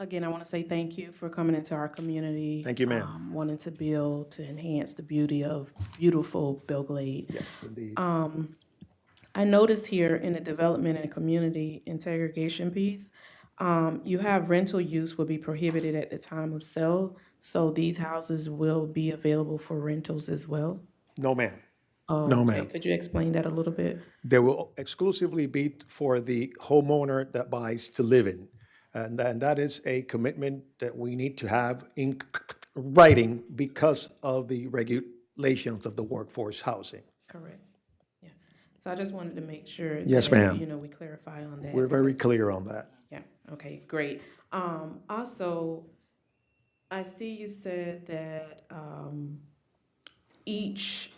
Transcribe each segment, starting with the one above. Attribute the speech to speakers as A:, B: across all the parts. A: Again, I want to say thank you for coming into our community.
B: Thank you, ma'am.
A: um, Wanting to build, to enhance the beauty of beautiful Belglade.
B: Yes, indeed.
A: I noticed here in the development and community integration piece, um, you have rental use will be prohibited at the time of sale. So these houses will be available for rentals as well.
B: No, ma'am. No,
A: Okay,
B: ma'am.
A: Could you explain that a little bit?
B: They will exclusively be t- for the homeowner that buys to live in. And then that is a commitment that we need to have in c- c- writing because of the regulations of the workforce housing.
A: Correct. Yeah. So I just wanted to make sure.
B: Yes,
A: that,
B: ma'am.
A: You know, we clarify on that.
B: We're very clear on that.
A: Yeah, okay, great. Um, also, I see you said that, um, each,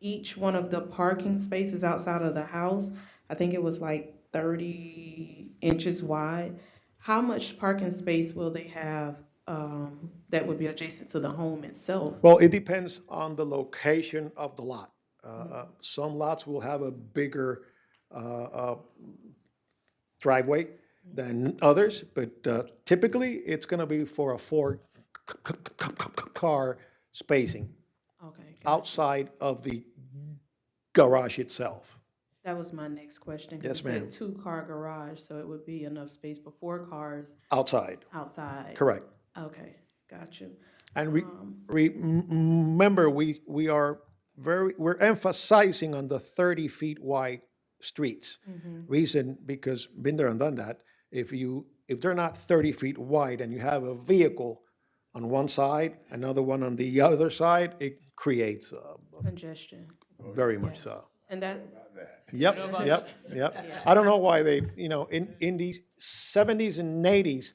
A: each one of the parking spaces outside of the house, I think it was like thirty inches wide. How much parking space will they have, um, that would be adjacent to the home itself?
B: Well, it depends on the location of the lot. Uh, Some lots will have a bigger uh, uh, driveway than others, but uh, typically, it's going to be for a four-car spacing
A: Okay, got-
B: outside of the garage itself.
A: that was my next question. 'cause
B: Yes,
A: it said
B: ma'am.
A: Two-car garage, so it would be enough space for four cars
B: Outside,
A: outside.
B: correct.
A: Okay, got you.
B: And re- re- m- m- remember, we, we are very, we're emphasizing on the 30 feet wide streets. Reason, because been there and done that, if you, if they're not 30 feet wide and you have a vehicle on one side, another one on the other side, it creates, uh,
A: Congestion.
B: very much so.
A: And that,
B: Yep, yep, yep. I don't know why they, you know, in, in these seventies and eighties,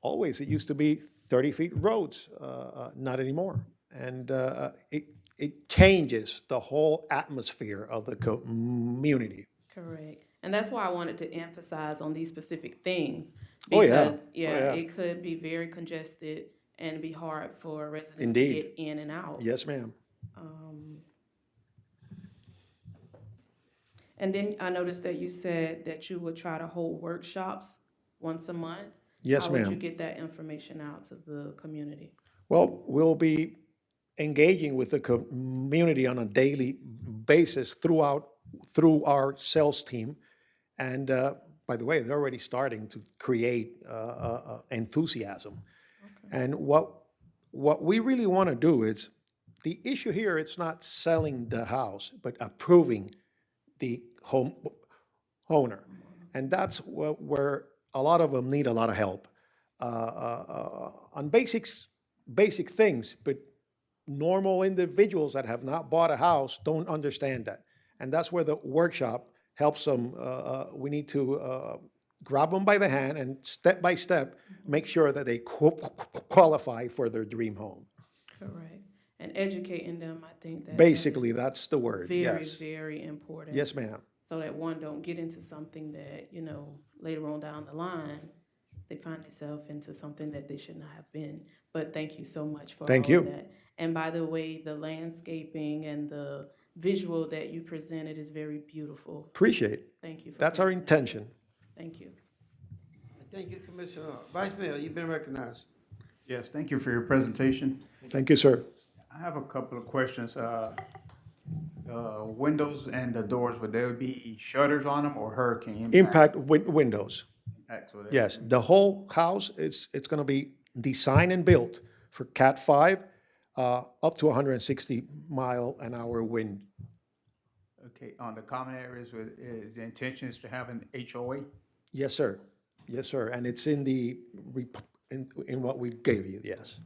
B: always, it used to be thirty feet roads, uh, uh, not anymore. And, uh, it, it changes the whole atmosphere of the community.
A: correct. And that's why I wanted to emphasize on these specific things.
B: Oh, yeah.
A: Because,
B: Oh,
A: yeah,
B: yeah.
A: it could be very congested and be hard for residents to
B: Indeed.
A: get in and out.
B: Yes, ma'am.
A: And then I noticed that you said that you would try to hold workshops once a month.
B: Yes,
A: How would you
B: ma'am.
A: get that information out to the community?
B: Well, we'll be engaging with the community on a daily basis throughout, through our sales team. And uh, by the way, they're already starting to create uh, uh, uh, enthusiasm. And what, what we really want to do is, the issue here, it's not selling the house, but approving the home owner. And that's where, where a lot of them need a lot of help uh, uh, uh, on basics, basic things, but normal individuals that have not bought a house don't understand that. And that's where the workshop helps them. Uh, uh, we need to uh, grab them by the hand and step by step make sure that they qu- qualify for their dream home.
A: Correct. And educating them, I think that. that is
B: Basically, that's the word.
A: Very,
B: yes.
A: very important.
B: Yes, ma'am.
A: so that one don't get into something that you know later on down the line they find themselves into something that they should not have been but thank you so much for
B: Thank
A: all of
B: you.
A: that and by the way the landscaping and the visual that you presented is very beautiful
B: Appreciate. it.
A: thank you for
B: That's
A: that.
B: our intention.
A: thank you
C: Thank you, Commissioner. Vice Mayor, you've been recognized.
D: Yes, thank you for your presentation.
B: Thank you, sir.
D: I have a couple of questions. Uh, uh, Windows and the doors, would there be shutters on them or hurricane?
B: Impact win- windows.
D: impacts? Would there-
B: Yes, the whole house is, it's gonna be designed and built for Cat five, uh, up to hundred and sixty mile an hour wind.
D: Okay, on the common areas, would- is the intention is to have an HOA?
B: Yes, sir. Yes, sir. And it's in the, rep- in, in what we gave you, yes.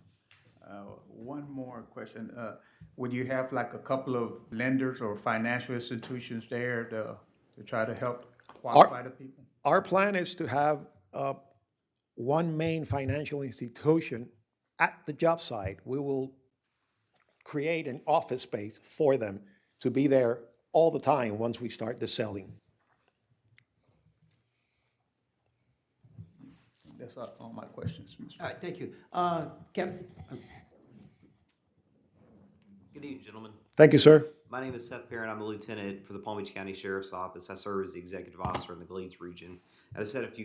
D: Uh, One more question. Uh, Would you have like a couple of lenders or financial institutions there to, to try to help qualify the people?
B: Our plan is to have, uh, one main financial institution at the job site. We will create an office space for them to be there all the time once we start the selling.
D: That's all all my questions, Mr.
C: All right, thank you. Uh, Captain,
E: Good evening, gentlemen.
B: Thank you, sir.
E: My name is Seth Perrin. I'm the lieutenant for the Palm Beach County Sheriff's Office. I serve as the executive officer in the Glades region. I just had a few